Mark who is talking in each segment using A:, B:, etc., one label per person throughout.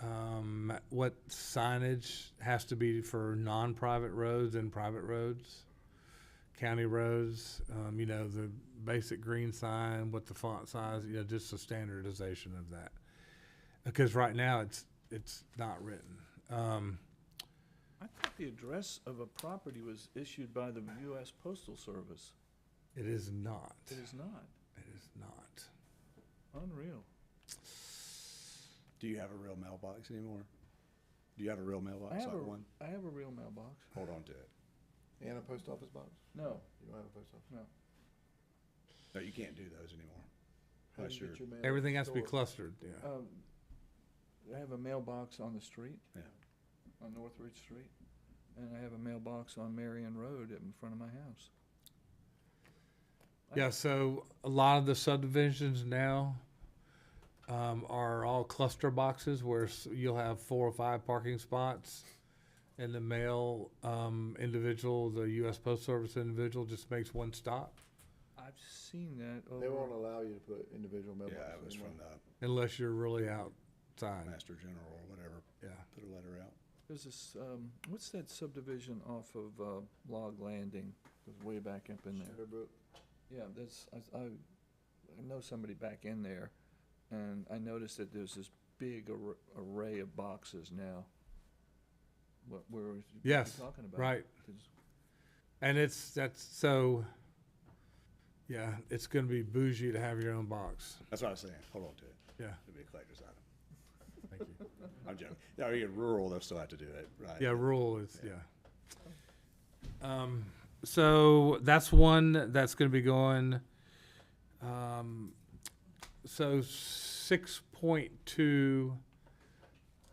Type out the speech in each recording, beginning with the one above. A: ma- Um, what signage has to be for non-private roads and private roads, county roads, um, you know, the basic green sign, what the font size, you know, just the standardization of that. Because right now, it's, it's not written. Um,
B: I thought the address of a property was issued by the U.S. Postal Service.
A: it is not,
B: It is not.
A: it is not.
B: Unreal.
C: Do you have a real mailbox anymore? Do you have a real mailbox
B: I have
C: like
B: a,
C: one?
B: I have a real mailbox.
C: Hold on to it.
D: And a post office box?
B: No,
D: You don't have a post office?
B: no.
C: No, you can't do those anymore.
D: How do
C: Unless
D: you
C: you're,
D: get your mail?
A: Everything has to be
D: stored?
A: clustered, yeah.
B: Um, I have a mailbox on the street.
C: Yeah.
B: On Northridge Street, and I have a mailbox on Marion Road in front of my house.
A: Yeah, so a lot of the subdivisions now um, are all cluster boxes where s- you'll have four or five parking spots. And the male um, individual, the U.S. Post Service individual, just makes one stop
B: I've seen that
D: They won't
B: over,
D: allow you to put individual
C: yeah,
D: mailboxes.
C: it was
D: anymore.
C: from the
A: unless you're really outside.
C: Master General or whatever,
A: Yeah,
C: put a letter out.
B: there's this, um, what's that subdivision off of, uh, Log Landing? Goes way back up in there.
D: Shadowbrook.
B: Yeah, that's, I, I, I know somebody back in there, and I noticed that there's this big ar- array of boxes now. What, where was you
A: Yes,
B: talking about?
A: right.
B: There's-
A: And it's that's so. Yeah, it's going to be bougie to have your own box.
C: That's what I was saying. Hold on to it.
A: Yeah,
C: It'll be a collector's item.
A: thank you.
C: I'm joking. No, you're rural, they'll still have to do it, right?
A: Yeah, rural is, yeah. Um, so that's one that's gonna be going, um, so six point two,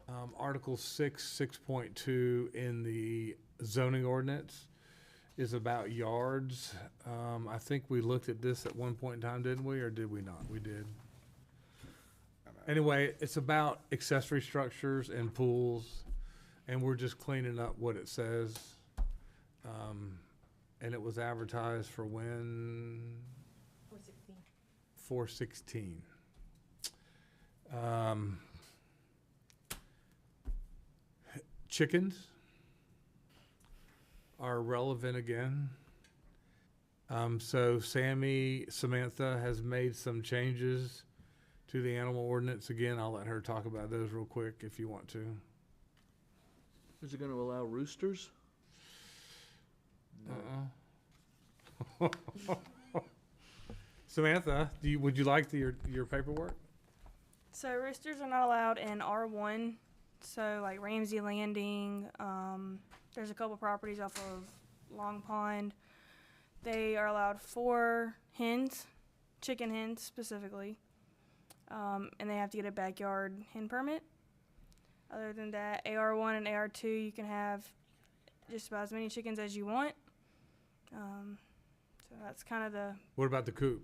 A: um, Article six, six point two in the zoning ordinance is about yards. Um, I think we looked at this at one point in time, didn't we, or did we not? We did.
C: I'm out.
A: Anyway, it's about accessory structures and pools, and we're just cleaning up what it says. Um, and it was advertised for when? Four sixteen. Four sixteen. Um, chickens are relevant again. Um, so Sammy, Samantha has made some changes to the animal ordinance again. I'll let her talk about those real quick if you want to.
B: Is it gonna allow roosters?
A: Uh-uh. Samantha, do you, would you like the, your, your paperwork?
E: So roosters are not allowed in R1. So like Ramsey Landing, um, there's a couple properties off of Long Pond. They are allowed four hens, chicken hens specifically, um, and they have to get a backyard hen permit. Other than that, AR1 and AR2, you can have just about as many chickens as you want. Um, so that's kind of the
A: What about the coop?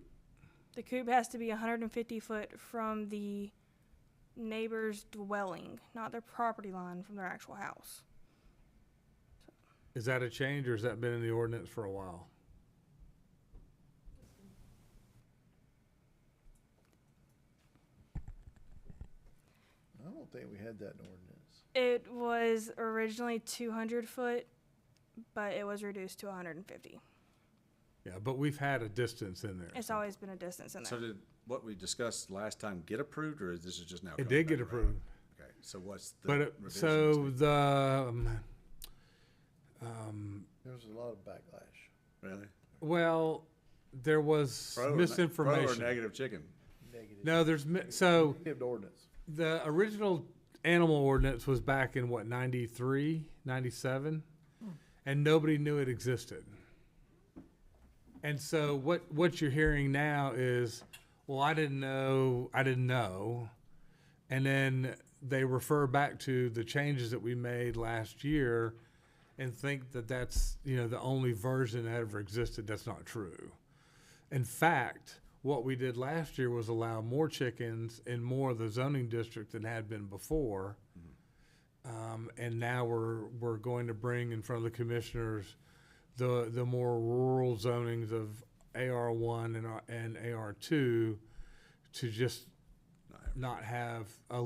E: the coop has to be 150 foot from the neighbor's dwelling, not their property line from their actual house.
A: Is that a change or has that been in the ordinance for a while?
D: I don't think we had that in ordinance.
E: It was originally 200 foot, but it was reduced to 150.
A: Yeah, but we've had a distance in there.
E: It's always been a distance in
F: So
E: there.
F: did what we discussed last time get approved, or is this is just now?
A: It
F: coming
A: did
F: back
A: get
F: around?
A: approved.
F: Okay, so what's the
A: But, it-
F: revisions?
A: so the, um, um,
D: There was a lot of backlash.
F: Really?
A: Well, there was
F: Pro or ne- Pro or
A: misinformation.
F: negative chicken?
D: Negative.
A: No, there's mi- so
D: Negative ordinance.
A: the original animal ordinance was back in what 93, 97 and nobody knew it existed. And so what what you're hearing now is, well, I didn't know, I didn't know, and then they refer back to the changes that we made last year, and think that that's you know the only version that ever existed. That's not true. In fact, what we did last year was allow more chickens in more of the zoning district than had been before. Um, and now we're, we're going to bring in front of the commissioners the, the more rural zonings of AR uh, one and, R- and AR two to just not have a